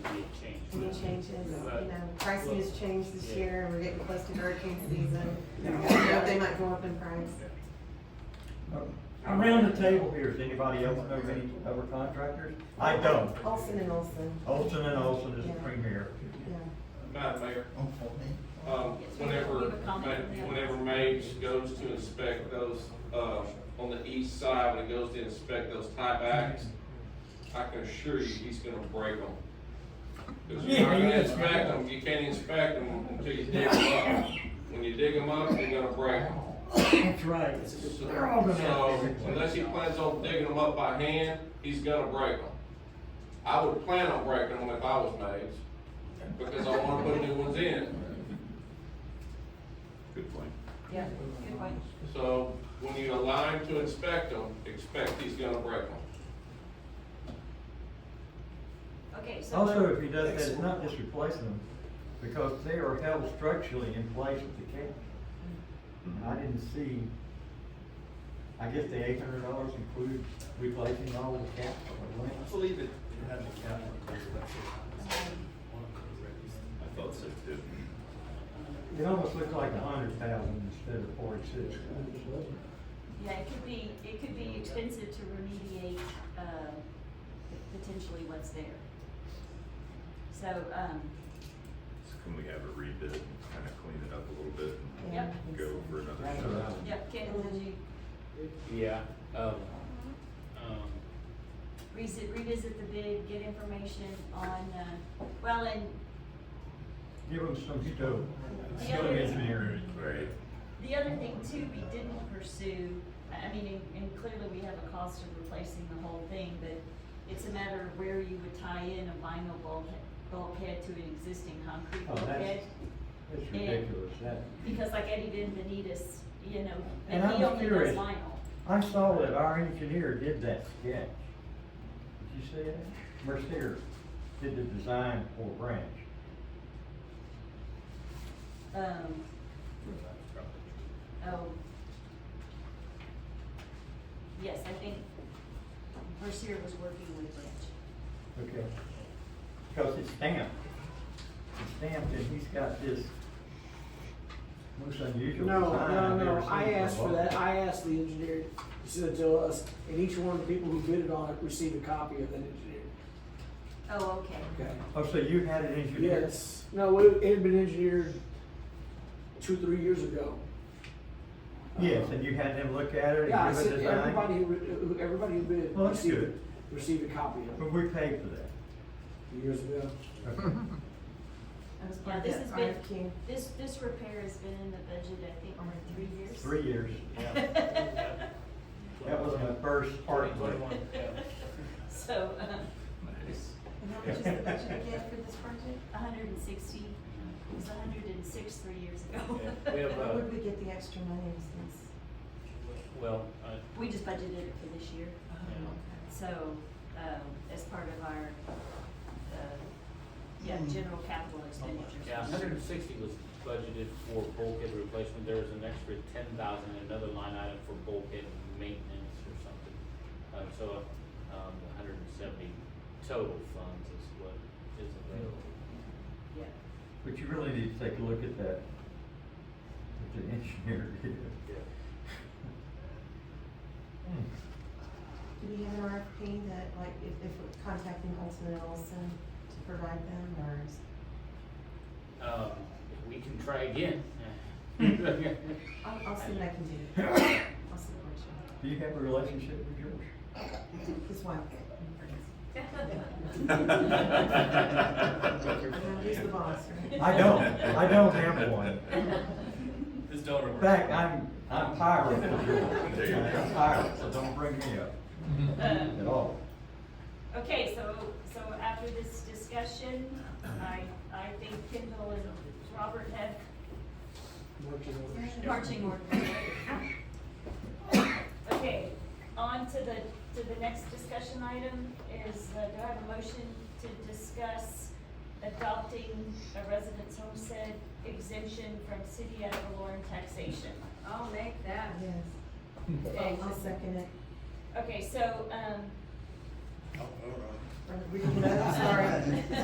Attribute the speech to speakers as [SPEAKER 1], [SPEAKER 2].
[SPEAKER 1] hurricane changes, you know, pricing has changed this year, and we're getting close to hurricane season. You know, They might go up in price.
[SPEAKER 2] Uh, Around the table here, does anybody else know any other contractors? I don't.
[SPEAKER 1] Olson and Olson,
[SPEAKER 2] Olson and Olson is the premier.
[SPEAKER 1] yeah.
[SPEAKER 3] Madam Mayor, um, whenever, Ma- whenever Mage goes to inspect those, uh, on the east side, when he goes to inspect those tiebacks, I can assure you, he's gonna break them. Cause you're not gonna inspect them, you can't inspect them until you dig them up. When you dig them up, you're gonna break them.
[SPEAKER 2] That's right. They're all gonna
[SPEAKER 3] So unless he plans on digging them up by hand, he's gonna break them. I would plan on breaking them if I was Mage, because I wanna put new ones in.
[SPEAKER 4] Good point.
[SPEAKER 5] Yeah, good point.
[SPEAKER 3] So when you allow him to inspect them, expect he's gonna break them.
[SPEAKER 5] Okay, so.
[SPEAKER 2] Also, if he does that, it's not just replacing them, because they are held structurally in place with the county. And I didn't see, I guess the eight hundred dollars includes replacing all the cap.
[SPEAKER 6] I believe it, it had the county.
[SPEAKER 5] um,
[SPEAKER 4] I thought so too.
[SPEAKER 2] It almost looked like a hundred thousand instead of forty-six.
[SPEAKER 5] Yeah, it could be, it could be expensive to remediate, uh, potentially what's there. So, um,
[SPEAKER 4] So can we have a rebid, kind of clean it up a little bit
[SPEAKER 5] Yep.
[SPEAKER 4] and go for another shot?
[SPEAKER 5] yep, Kendall, did you
[SPEAKER 7] Yeah, um, um,
[SPEAKER 5] revisit, revisit the bid, get information on, uh, well, and
[SPEAKER 2] Give them some stove.
[SPEAKER 5] The
[SPEAKER 2] Stove
[SPEAKER 5] other-
[SPEAKER 2] engineering.
[SPEAKER 4] Right.
[SPEAKER 5] the other thing too, we didn't pursue, I I mean, and, and clearly we have a cost of replacing the whole thing, but it's a matter of where you would tie in a vinyl bulkhead, bulkhead to an existing concrete
[SPEAKER 2] Oh, that's-
[SPEAKER 5] bulkhead.
[SPEAKER 2] It's ridiculous, that.
[SPEAKER 5] Because like Eddie Benvenitis, you know,
[SPEAKER 2] And
[SPEAKER 5] and he
[SPEAKER 2] I was
[SPEAKER 5] only does
[SPEAKER 2] curious.
[SPEAKER 5] vinyl.
[SPEAKER 2] I saw that our engineer did that sketch. Did you see that? Mercier did the design for Branch.
[SPEAKER 5] Um, oh. Yes, I think Mercier was working with Branch.
[SPEAKER 2] Okay. Because it's stamped. It's stamped and he's got this most unusual design.
[SPEAKER 8] No, no,
[SPEAKER 2] I've ever
[SPEAKER 8] no,
[SPEAKER 2] seen
[SPEAKER 8] I asked for
[SPEAKER 2] a
[SPEAKER 8] that,
[SPEAKER 2] wall.
[SPEAKER 8] I asked the engineer to send it to us, and each one of the people who bid it on it received a copy of that engineer.
[SPEAKER 5] Oh, okay.
[SPEAKER 8] Okay.
[SPEAKER 2] Oh, so you had it engineered?
[SPEAKER 8] Yes, no, it it had been engineered two, three years ago.
[SPEAKER 2] Yes, and you had them look at it
[SPEAKER 8] Yeah, I
[SPEAKER 2] and give a
[SPEAKER 8] said, everybody
[SPEAKER 2] design?
[SPEAKER 8] who, who- everybody who bid
[SPEAKER 2] Well, that's
[SPEAKER 8] received,
[SPEAKER 2] good.
[SPEAKER 8] received a copy of
[SPEAKER 2] But
[SPEAKER 8] it
[SPEAKER 2] we paid for
[SPEAKER 8] years ago.
[SPEAKER 2] that. Okay.
[SPEAKER 1] That was
[SPEAKER 5] Yeah,
[SPEAKER 1] part
[SPEAKER 5] this has
[SPEAKER 1] of the
[SPEAKER 5] been,
[SPEAKER 1] RFQ.
[SPEAKER 5] this, this repair has been in the budget, I think, over three years.
[SPEAKER 2] Three years. That was my first part. but-
[SPEAKER 7] Twenty-one, yeah.
[SPEAKER 5] So, um,
[SPEAKER 4] Nice.
[SPEAKER 1] And how much is the budget again for this project?
[SPEAKER 5] hundred and sixty, it was hundred and six three years ago.
[SPEAKER 7] Yeah, we have,
[SPEAKER 1] Where
[SPEAKER 7] uh,
[SPEAKER 1] would we get the extra money since?
[SPEAKER 7] Well, uh, I,
[SPEAKER 5] We just budgeted it for this year. So, um, as part of our, uh, yeah, general capital expenditures.
[SPEAKER 7] yeah, hundred and sixty was budgeted for bulkhead replacement, there was an extra ten thousand, another line item for bulkhead maintenance or something. Uh, so, um, hundred and seventy total funds is what is available.
[SPEAKER 5] Yeah.
[SPEAKER 2] But you really need to take a look at that, what the engineer did. Hmm.
[SPEAKER 1] Do we have an RFP that, like, if, if we're contacting Olson and Olson to provide them, or is?
[SPEAKER 7] Um, we can try again.
[SPEAKER 1] I'll, I'll see what I can do. I'll see what I
[SPEAKER 2] Do you have a relationship with George?
[SPEAKER 1] can do. His wife. Uh, He's the boss, right?
[SPEAKER 2] I don't, I don't have one.
[SPEAKER 6] His daughter.
[SPEAKER 2] In fact, I'm, I'm tired of
[SPEAKER 4] There you
[SPEAKER 2] George.
[SPEAKER 4] go.
[SPEAKER 2] I'm tired, so don't bring me up at all.
[SPEAKER 5] Okay, so, so after this discussion, I, I think Kendall and Robert have
[SPEAKER 8] Working on it.
[SPEAKER 5] marching orders. Okay, on to the, to the next discussion item is, uh, do I have a motion to discuss adopting a residence homestead exemption from city ad valorem taxation?
[SPEAKER 9] I'll make that.
[SPEAKER 1] Yes.
[SPEAKER 5] Okay,
[SPEAKER 1] I'll second it.
[SPEAKER 5] okay, so, um,
[SPEAKER 1] Or we can, sorry.